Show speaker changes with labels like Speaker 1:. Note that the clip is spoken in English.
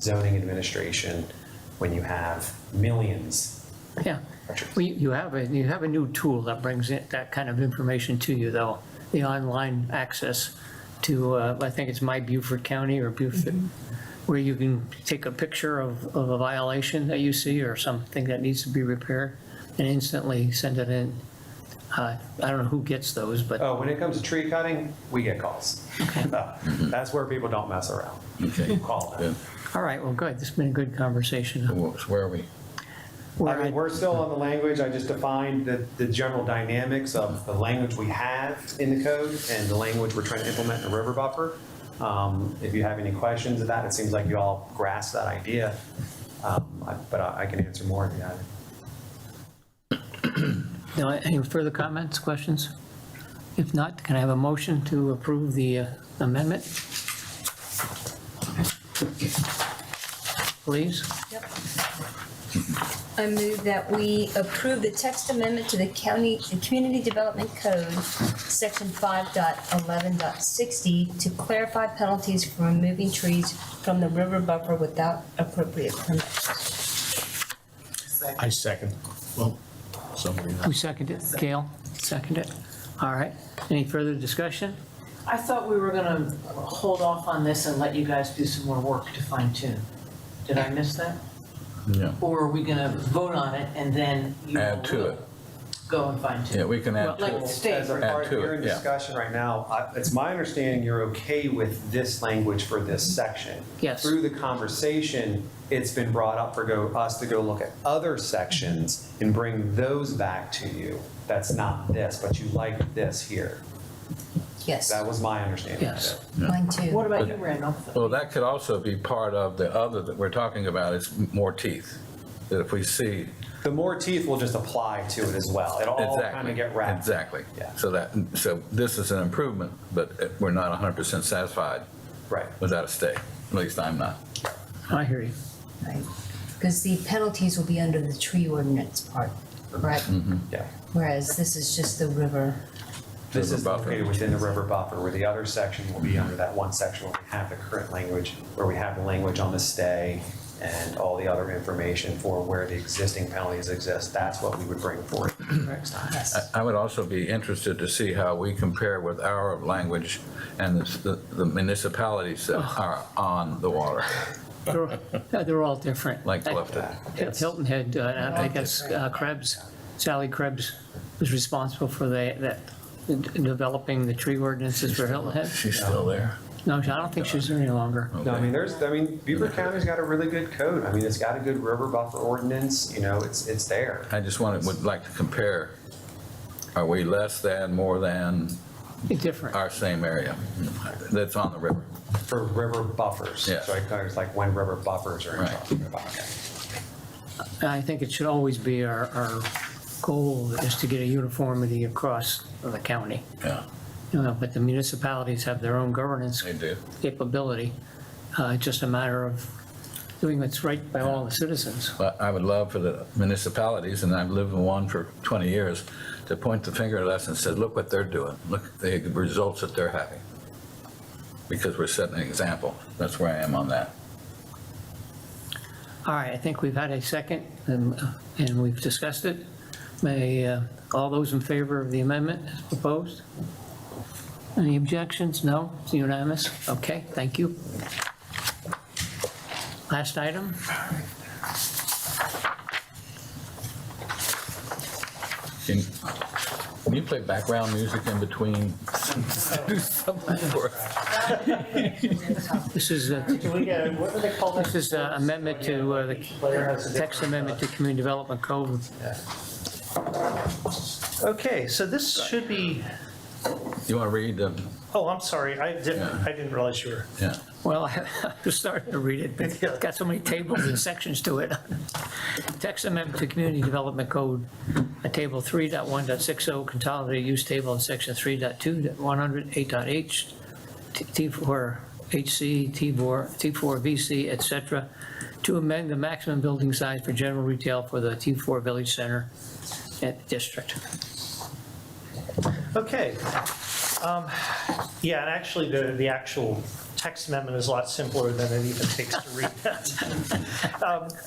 Speaker 1: zoning administration when you have millions
Speaker 2: Yeah,
Speaker 1: of structures.
Speaker 2: well, you you have a, you have a new tool that brings it, that kind of information to you, though, the online access to, uh, I think it's My Beaufort County or Beaufort, where you can take a picture of, of a violation that you see or something that needs to be repaired and instantly send it in. Uh, I don't know who gets those, but
Speaker 1: Oh, when it comes to tree cutting, we get calls. Uh, That's where people don't mess around.
Speaker 3: Okay.
Speaker 1: Call
Speaker 3: Yeah.
Speaker 1: them.
Speaker 2: all right, well, good, this has been a good conversation.
Speaker 3: Well, so Where are we?
Speaker 1: I mean, we're still on the language, I just defined the, the general dynamics of the language we have in the code and the language we're trying to implement in the river buffer. Um, If you have any questions of that, it seems like you all grasp that idea, Um, I- but I I can answer more if you have. it.
Speaker 2: No, any further comments, questions? If not, can I have a motion to approve the uh, amendment? Please?
Speaker 4: I move that we approve the text amendment to the county, the Community Development Code, section 5.11.60, to clarify penalties for removing trees from the river buffer without appropriate permit.
Speaker 5: I second.
Speaker 3: Well, somebody,
Speaker 2: Who seconded it? Gail seconded it? All right. Any further discussion?
Speaker 6: I thought we were gonna hold off on this and let you guys do some more work to fine tune. Did I miss that?
Speaker 3: yeah,
Speaker 6: Or are we gonna vote on it and then you
Speaker 3: add to
Speaker 6: will
Speaker 3: it.
Speaker 6: go and fine
Speaker 3: Yeah,
Speaker 6: tune?
Speaker 3: we can add to
Speaker 6: Like
Speaker 3: it.
Speaker 6: state,
Speaker 1: As a
Speaker 6: right?
Speaker 1: part,
Speaker 3: Add to it,
Speaker 1: you're in
Speaker 3: yeah.
Speaker 1: discussion right now, I- it's my understanding you're okay with this language for this section.
Speaker 2: Yes.
Speaker 1: Through the conversation, it's been brought up for go, us to go look at other sections and bring those back to you. That's not this, but you like this here.
Speaker 4: Yes,
Speaker 1: That was my understanding of
Speaker 2: Yes.
Speaker 1: it.
Speaker 4: mine
Speaker 6: What
Speaker 4: too.
Speaker 6: about you, Randolph?
Speaker 3: Well, that could also be part of the other that we're talking about, is more teeth. That if we see,
Speaker 1: The more teeth will just apply to it as well. It'll all kind
Speaker 3: exactly.
Speaker 1: of get wrapped.
Speaker 3: Exactly.
Speaker 1: Yeah.
Speaker 3: So that, so this is an improvement, but uh, we're not 100% satisfied
Speaker 1: Right.
Speaker 3: without a stay. At least I'm not.
Speaker 2: I hear you.
Speaker 4: Because the penalties will be under the tree ordinance part, correct?
Speaker 1: Yeah.
Speaker 4: Whereas this is just the river.
Speaker 1: This
Speaker 3: River
Speaker 1: is
Speaker 3: buffer.
Speaker 1: located within the river buffer, where the other section will be under that one section where we have the current language, where we have the language on the stay and all the other information for where the existing penalties exist. That's what we would bring forward next time.
Speaker 4: Yes.
Speaker 3: I would also be interested to see how we compare with our language and the the municipalities that are on the water,
Speaker 2: They're- yeah, They're all different.
Speaker 3: like Clifton.
Speaker 2: Hilton Head, uh, and I guess uh, Krebs, Sally Krebs was responsible for the- that, developing the tree ordinances for Hilton Head.
Speaker 3: She's still there.
Speaker 2: No, I don't think she's there any longer.
Speaker 1: No, I mean, there's, I mean, Beaver County's got a really good code. I mean, it's got a good river buffer ordinance, you know, it's, it's there.
Speaker 3: I just wanted, would like to compare, are we less than, more than
Speaker 2: Different.
Speaker 3: our same area that's on the river?
Speaker 1: For river buffers.
Speaker 3: Yes.
Speaker 1: So it covers like when river buffers are in
Speaker 3: Right.
Speaker 1: charge. Okay.
Speaker 2: And I think it should always be our, our goal is to get a uniformity across the county.
Speaker 3: Yeah,
Speaker 2: You know, but the municipalities have their own governance
Speaker 3: they do.
Speaker 2: capability. Uh, It's just a matter of doing what's right by all the citizens.
Speaker 3: But I would love for the municipalities, and I've lived in one for 20 years, to point the finger at us and say, look what they're doing, look at the results that they're having. Because we're setting an example. That's where I am on that.
Speaker 2: All right, I think we've had a second and, uh, and we've discussed it. May, uh, all those in favor of the amendment as proposed? Any objections? No? It's unanimous? Okay, thank you. Last item?
Speaker 3: Can can you play background music in between? Do something for us.
Speaker 2: This is, uh,
Speaker 5: We got, what do they call this?
Speaker 2: this is uh, amendment to, uh, the text amendment to Community Development Code.
Speaker 5: Okay, so this should be,
Speaker 3: You want to read the,
Speaker 5: oh, I'm sorry, I didn't, I didn't realize you were.
Speaker 3: yeah.
Speaker 2: Well, I was starting to read it, but it's got so many tables and sections to it. Text amendment to Community Development Code, uh, Table 3.1.60, oh, consolidated use table in Section 3.2.108.h, T- T4 HC, T4, T4 VC, et cetera, to amend the maximum building size for general retail for the T4 Village Center uh, district.
Speaker 5: Okay. Um, Yeah, and actually, the, the actual text amendment is a lot simpler than it even takes to read that. Um,